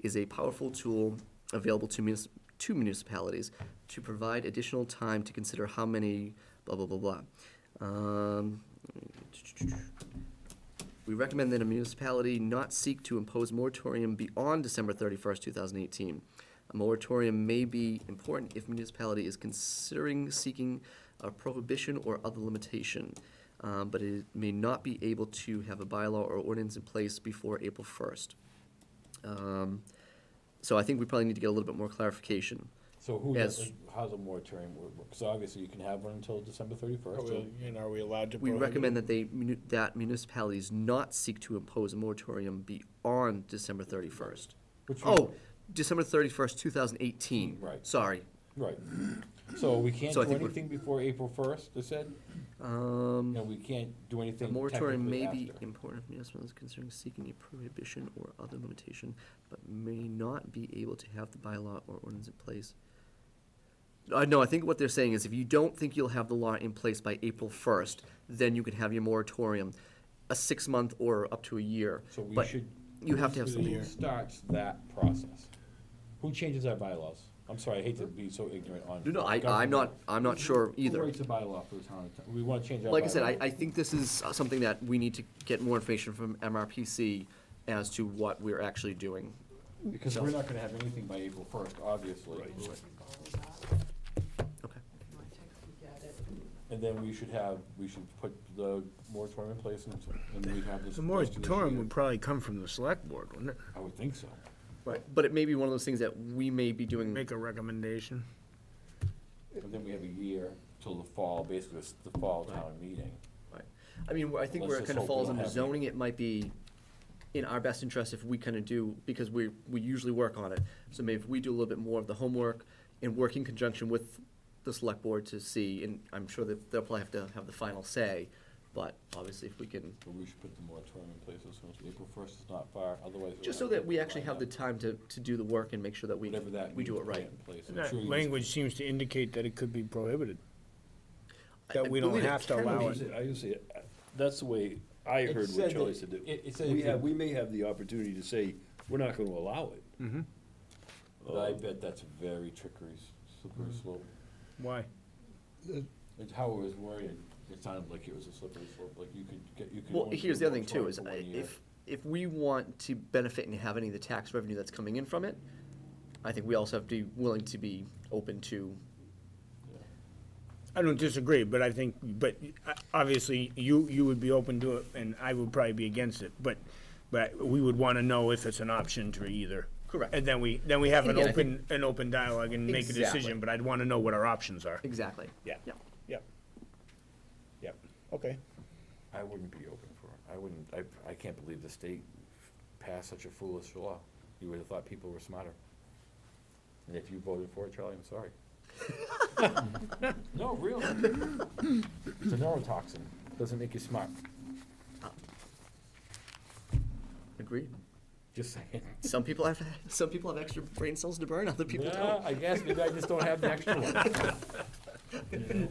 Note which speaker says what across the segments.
Speaker 1: is a powerful tool available to, munis- to municipalities to provide additional time to consider how many blah blah blah blah. Um, we recommend that a municipality not seek to impose moratorium beyond December thirty-first, two thousand eighteen. A moratorium may be important if municipality is considering seeking a prohibition or other limitation, um, but it may not be able to have a bylaw or ordinance in place before April first. Um, So I think we probably need to get a little bit more clarification.
Speaker 2: So who,
Speaker 1: Yes.
Speaker 2: like, how's a moratorium work? Because obviously you can have one until December
Speaker 3: Are
Speaker 2: thirty-first.
Speaker 3: we, and are we allowed to
Speaker 1: We
Speaker 3: prohibit?
Speaker 1: recommend that they, muni- that municipalities not seek to impose a moratorium beyond December thirty-first.
Speaker 2: Which one?
Speaker 1: Oh, December thirty-first, two thousand eighteen.
Speaker 2: Right.
Speaker 1: Sorry.
Speaker 2: Right. So we can't
Speaker 1: So I
Speaker 2: do
Speaker 1: think we're-
Speaker 2: anything before April first, they said?
Speaker 1: Um,
Speaker 2: And we can't do
Speaker 1: the
Speaker 2: anything
Speaker 1: moratorium
Speaker 2: technically
Speaker 1: may be
Speaker 2: after.
Speaker 1: important if municipalities considering seeking a prohibition or other limitation, but may not be able to have the bylaw or ordinance in place. Uh, no, I think what they're saying is if you don't think you'll have the law in place by April first, then you can have your moratorium, a six-month or up to a year.
Speaker 2: So we
Speaker 1: but
Speaker 2: should.
Speaker 1: You have to have
Speaker 2: who
Speaker 1: something.
Speaker 2: Starts that process. Who changes our bylaws? I'm sorry, I hate to be so ignorant on.
Speaker 1: No, no, I,
Speaker 2: government.
Speaker 1: I'm not, I'm not sure
Speaker 2: Who
Speaker 1: either.
Speaker 2: writes a bylaw for the town? of Ta- We wanna change our bylaw.
Speaker 1: Like I said, I, I think this is uh, something that we need to get more information from MRPC as to what we're actually doing.
Speaker 2: Because we're not gonna have anything by April first, obviously.
Speaker 1: Okay.
Speaker 2: And then we should have, we should put the moratorium in place and, and we'd have this.
Speaker 3: The
Speaker 2: first of this
Speaker 3: moratorium
Speaker 2: year.
Speaker 3: would probably come from the select board, wouldn't it?
Speaker 2: I would think so.
Speaker 1: Right, but it may be one of those things that we may be doing,
Speaker 3: Make a recommendation.
Speaker 2: And then we have a year till the fall, basically, it's the fall town meeting.
Speaker 1: right. I mean, I think where it
Speaker 2: Let's just
Speaker 1: kind of
Speaker 2: hope we
Speaker 1: falls
Speaker 2: don't
Speaker 1: under
Speaker 2: have-
Speaker 1: zoning, it might be in our best interest if we kind of do, because we, we usually work on it. So maybe if we do a little bit more of the homework and work in conjunction with the select board to see, and I'm sure that they'll probably have to have the final say, but obviously if we can
Speaker 2: But we should put the moratorium in place as soon as April first is not far, otherwise. we'll
Speaker 1: Just so
Speaker 2: have
Speaker 1: that we
Speaker 2: to
Speaker 1: actually have the
Speaker 2: line
Speaker 1: time to, to do the work and make sure that
Speaker 2: up
Speaker 1: we,
Speaker 2: Whatever that.
Speaker 1: we do it
Speaker 2: means, put
Speaker 1: right.
Speaker 2: in place. I'm
Speaker 3: That
Speaker 2: sure you-
Speaker 3: language seems to indicate that it could be prohibited.
Speaker 1: I-
Speaker 3: That
Speaker 1: I
Speaker 3: we don't
Speaker 1: believe it
Speaker 3: have to
Speaker 1: can
Speaker 3: allow
Speaker 1: be.
Speaker 3: it.
Speaker 4: I usually, that's the way I
Speaker 2: It
Speaker 4: heard
Speaker 2: said
Speaker 4: what
Speaker 2: that-
Speaker 4: Charlie said to do.
Speaker 2: it- it said
Speaker 4: We
Speaker 2: it could-
Speaker 4: have, we may have the opportunity to say, we're not gonna allow it.
Speaker 2: But
Speaker 3: Oh.
Speaker 2: I bet that's very trickery, s- slippery
Speaker 3: Hmm.
Speaker 2: slope.
Speaker 3: Why?
Speaker 2: It's how it was worded, it sounded like it was a slippery slope, like you could get, you could.
Speaker 1: Well,
Speaker 2: only do
Speaker 1: here's the other thing too,
Speaker 2: moratorium
Speaker 1: is I-
Speaker 2: for one year.
Speaker 1: if, if we want to benefit and have any of the tax revenue that's coming in from it, I think we also have to be willing to be open to,
Speaker 3: I don't disagree, but I think, but uh, obviously, you, you would be open to it, and I would probably be against it, but, but we would want to know if it's an option to either.
Speaker 1: Correct.
Speaker 3: And then we, then we have an
Speaker 1: Again, I
Speaker 3: open, an open dialogue and make a
Speaker 1: Exactly.
Speaker 3: decision, but I'd want to know what our options are.
Speaker 1: exactly.
Speaker 3: Yeah.
Speaker 1: Yeah.
Speaker 3: Yep. Yep, okay.
Speaker 2: I wouldn't be open for it. I wouldn't, I, I can't believe the state passed such a foolish law. You would have thought people were smarter. And if you voted for it, Charlie, I'm sorry. No, really. It's a neurotoxin. Doesn't make you smart.
Speaker 1: Agreed.
Speaker 2: Just saying.
Speaker 1: Some people have, some people have extra brain cells to burn, other people
Speaker 2: Yeah,
Speaker 1: don't.
Speaker 2: I guess maybe I just don't have the extra one.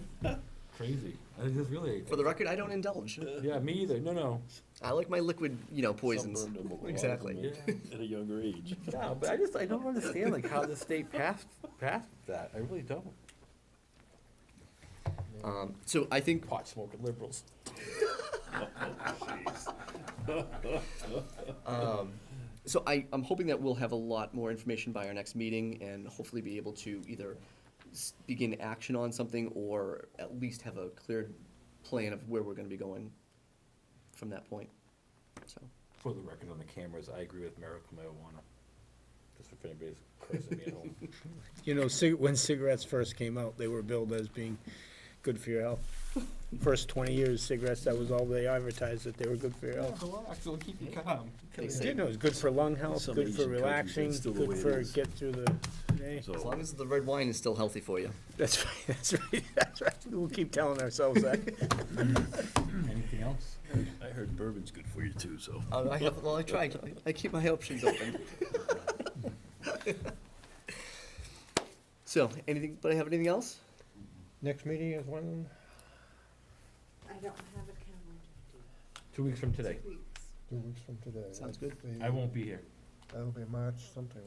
Speaker 2: Crazy. I think it's really.
Speaker 1: For the record, I don't indulge.
Speaker 2: Yeah, me either. No, no.
Speaker 1: I like my liquid, you know, poisons.
Speaker 4: Sunburned them a lot.
Speaker 1: Exactly.
Speaker 4: At a younger age.
Speaker 2: No, but I just, I don't understand like how the state passed, passed that. I really don't.
Speaker 1: Um, so I think
Speaker 2: Pot smoking liberals.
Speaker 1: So I, I'm hoping that we'll have a lot more information by our next meeting and hopefully be able to either s- begin action on something or at least have a clear plan of where we're gonna be going from that point, so.
Speaker 2: For the record on the cameras, I agree with medical marijuana. Just if anybody's cursing me at home.
Speaker 3: You know, cig- when cigarettes first came out, they were billed as being good for your health. First twenty years, cigarettes, that was all they advertised, that they were good for your health.
Speaker 2: Relax, it'll keep you calm.
Speaker 1: They say,
Speaker 3: Didn't know, it's good for lung health,
Speaker 4: Some
Speaker 3: good for
Speaker 4: Asian countries, that's
Speaker 3: relaxing,
Speaker 4: still the
Speaker 3: good
Speaker 4: way it
Speaker 3: for
Speaker 4: is.
Speaker 3: get through the day.
Speaker 1: as long as the red wine is still healthy for you.
Speaker 3: That's right, that's right, that's right. We'll keep telling ourselves that.
Speaker 2: Anything else?
Speaker 4: I heard bourbon's good for you too, so.
Speaker 1: Uh, I have, well, I try, I- I keep my options open. So, anything, but I have anything else?
Speaker 3: Next meeting is when?
Speaker 5: I don't have a calendar.
Speaker 2: Two weeks from today.
Speaker 5: Two weeks.
Speaker 6: Two weeks from today.
Speaker 1: Sounds good.
Speaker 6: That's the-
Speaker 2: I won't be here.
Speaker 6: That'll be March something.